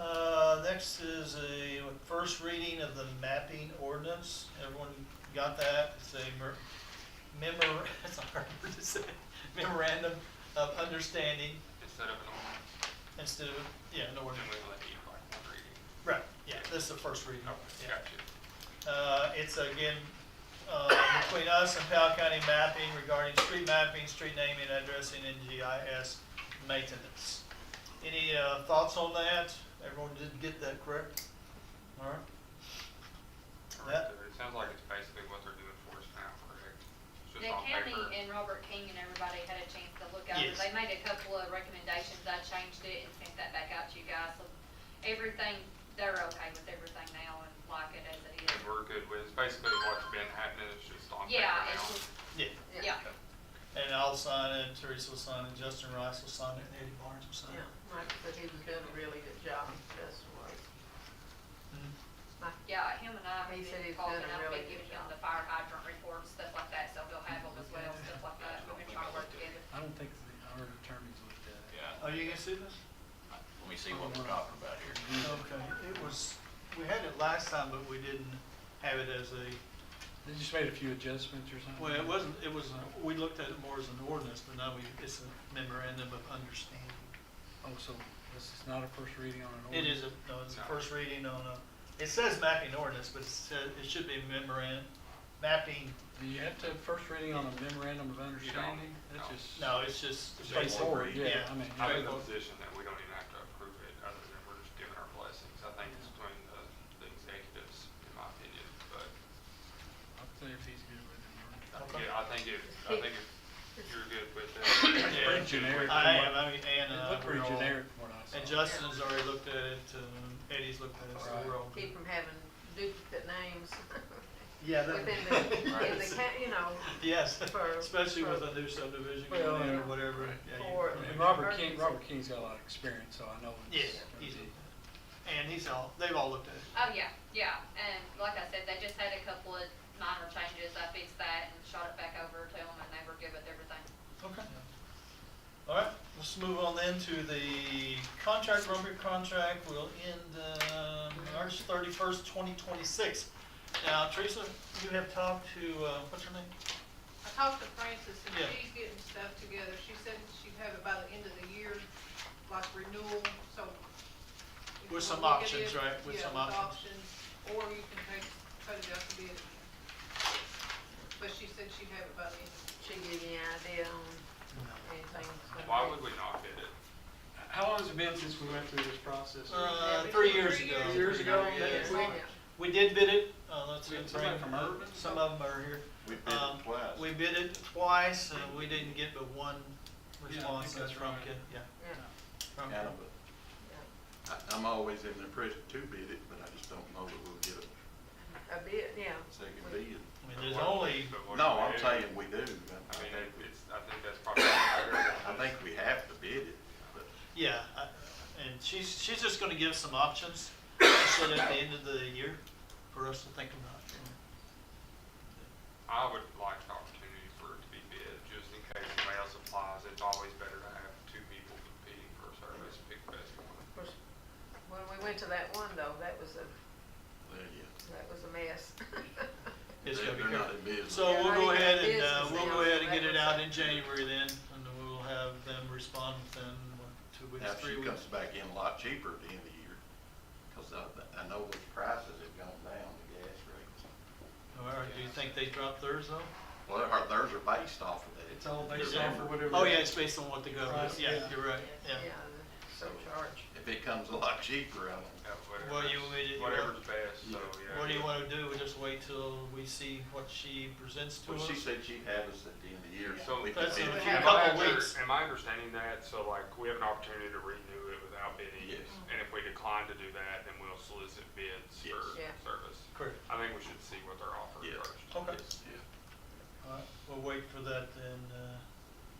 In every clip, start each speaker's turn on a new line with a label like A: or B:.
A: Uh, next is a first reading of the mapping ordinance. Everyone got that? It's a mer- memor, it's a hard word to say, memorandum of understanding
B: instead of an ordinance,
A: instead of, yeah, no
B: then
A: ordinance.
B: we let you like one reading.
A: Right, yeah, this is the first reading.
B: Okay,
A: yeah.
B: gotcha.
A: Uh, it's again, uh, between us and Powell County Mapping regarding street mapping, street naming, addressing, and GIS maintenance. Any, uh, thoughts on that? Everyone did get that correct? All right? That-
B: Alright, so It sounds like it's basically what they're doing for us now, correct? It's just
C: The
B: on
C: county
B: paper.
C: and Robert King and everybody had a chance to look at it.
A: Yes.
C: They made a couple of recommendations. I changed it and sent that back out to you guys. So Everything, they're okay with everything now and like it as it is.
B: And we're good with, it's basically what's been happening, it's just on paper
C: Yeah,
B: now.
C: it's just,
A: Yeah,
C: yeah.
A: and I'll sign it, Teresa will sign it, Justin Rice will sign it, and Eddie Barnes will sign
D: Yeah,
A: it.
D: Mike said he was doing a really good job, Justin was.
A: Mhm.
C: Yeah, him and I have
D: He said
C: been
D: he's
C: talking,
D: done a
C: I've been
D: really good
C: giving him
D: job.
C: the fire hydrant report, and stuff like that, so they'll have them as well, stuff like that, we've been trying to work together.
E: I don't think the- our attorneys looked at it.
F: Yeah, Uh,
A: Are Oh, you gonna see this?
F: let me see what we're talking about here.
E: Mm-hmm.
A: Okay, it was, we had it last time, but we didn't have it as a,
E: They just made a few adjustments or something.
A: well, it wasn't, it was, a- we looked at it more as an ordinance, but now we, it's a memorandum of understanding.
E: Oh, so this is not a first reading on an
A: It
E: ordinance?
A: is, a- no, it's a
B: No.
A: first reading on a, it says mapping ordinance, but it says, it should be memorandum, mapping,
E: Do you have to have first reading on a memorandum of understanding? That's
B: no.
E: just.
A: no, it's just.
B: It's just one
A: straightforward,
B: read.
E: Yeah, I mean.
B: I'm in the
E: yeah.
B: position that we don't even have to approve it, other than we're just giving our blessings. I think it's between the, the executives, in my opinion, but
E: I'll say if he's good with
B: I
A: Okay.
B: think, I think if, I think if you're good with that.
A: Yeah.
B: yeah, it's just
E: Generic.
B: wait.
A: I am, I mean, Ann and
E: it. It
A: I,
E: looked
A: we're
E: pretty
A: all-
E: generic from what I
A: And
E: saw.
A: Justin's already looked at it, um, Eddie's looked at it, so we're all good.
D: Keep from having duplicate names.
A: Yeah, that-
D: Within the, in the,
A: Right.
D: ca- you know,
A: Yes,
D: for-
A: especially with
D: for-
A: a new subdivision going
E: Well,
A: in or
D: yeah.
A: whatever. yeah, you-
D: For-
A: yeah,
E: And
A: you-
E: Robert King,
D: Emergency.
E: Robert King's got a lot of experience, so I know
A: Yeah,
E: it's. gonna
A: he's,
E: be-
A: and he's all, they've all looked at it.
C: Oh, yeah, yeah, and like I said, they just had a couple of minor changes, I fixed that and shot it back over to them, and they were good with everything.
A: Okay. All right, let's move on then to the contract, Robert contract will end, uh, March thirty-first, twenty twenty-six. Now, Teresa, you have talked to, uh, what's her name?
G: I talked to Frances and
A: Yeah.
G: she's getting stuff together. She said she'd have it by the end of the year, like renewal, so. if you
A: With some
G: wanna look at
A: options,
G: it,
A: right? With
G: yeah,
A: some options.
G: options, Or you can take, put it up to bid. But she said she'd have it by the end. of
D: should give you an idea on anything. that's
B: Why
D: gonna
B: would we not bid it?
E: How long has it been since we went through this process?
A: Uh,
G: Yeah,
A: three
G: three
A: years
G: years.
A: ago.
E: Years ago,
A: Yeah.
E: that
D: be.
E: quick?
D: Yeah.
A: We did bid it, uh, let's
E: We had
A: bring,
E: somebody from Urban?
A: some of them are here.
F: We bid
A: Um,
F: it twice.
A: We bid it twice, and we didn't get but one
E: Yeah, I think
A: response, that's
E: that's
A: from
E: right.
A: Kid, yeah.
D: Yeah,
A: from
F: Kind
A: Kid.
F: of a- I- I'm always in the impression to bid it, but I just don't know that we'll get a
D: yeah. A bit, yeah.
F: second
D: We-
F: bid.
A: I mean, there's
B: But what-
A: only,
B: but what
F: No,
B: do we
F: I'm
B: do?
F: saying we do.
B: I mean, it-
F: I-
B: it's, I think that's probably.
F: I think we have to bid it, but
A: yeah, I- and she's, she's just gonna give some options, so that at the end of the year, for us to think about.
B: I would like the opportunity for it to be bid, just in case somebody else applies. It's always better to have two people competing for a service, pick the best one.
D: Of course, When we went to that one though, that was a,
F: there you go.
D: that was a mess.
A: It's
F: They-
A: gonna be
F: They're not
A: good.
F: in business.
A: So we'll go ahead and, uh,
D: Business
A: we'll
D: now,
A: go ahead and
D: that
A: get it
D: was-
A: out in January then, and then we'll have them respond within, what, two
F: Now,
A: weeks,
F: if
A: three
F: she
A: weeks.
F: comes back in a lot cheaper at the end of the year, because I, I know the prices have gone down, the gas rates.
A: All right, do you think they dropped theirs though?
F: Well, their- theirs are based off of that.
E: It's all based
F: They're
E: off
F: never-
E: of whatever.
A: Oh, yeah, it's based on what the government,
E: Price,
A: yeah,
E: yeah.
A: you're right, yeah.
D: Yeah, the surcharge.
F: If it comes a lot cheaper, I don't.
B: Yeah, whatever-
A: Well, you- we- you-
B: Whatever's best, so, yeah.
A: What do you wanna do, we just wait till we see what she presents to
F: Well,
A: us?
F: she said she'd have us at the end of the year.
B: So-
F: we could
A: That's
F: bid
A: a
F: it.
A: few
B: Am
A: couple
B: I under-
A: weeks.
B: Am I understanding that, so like, we have an opportunity to renew it without bidding?
F: Yes.
B: And if we decline to do that, then we'll solicit bids
F: Yes.
B: for
D: Yeah.
B: service.
A: Correct.
B: I think we should see what they're offering
F: Yes.
B: first.
A: Okay.
F: Yes, yeah.
A: All right, we'll wait for that then, uh,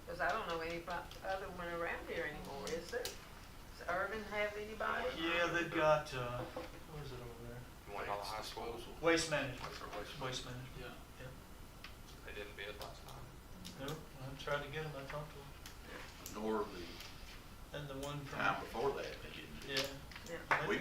D: Cause I don't know any bu- other one around here anymore, is there? Does Urban have anybody?
A: yeah, they've got, uh, what is it over there?
B: You want all the high schools?
A: Waste management,
B: What's their waste?
A: waste management,
E: Yeah.
A: yeah.
B: They didn't bid last time.
A: No, I tried to get them, I talked to
F: Nor the
A: them, and the one from,
F: time before that, they didn't.
A: yeah.
D: Yeah.
A: I think
F: We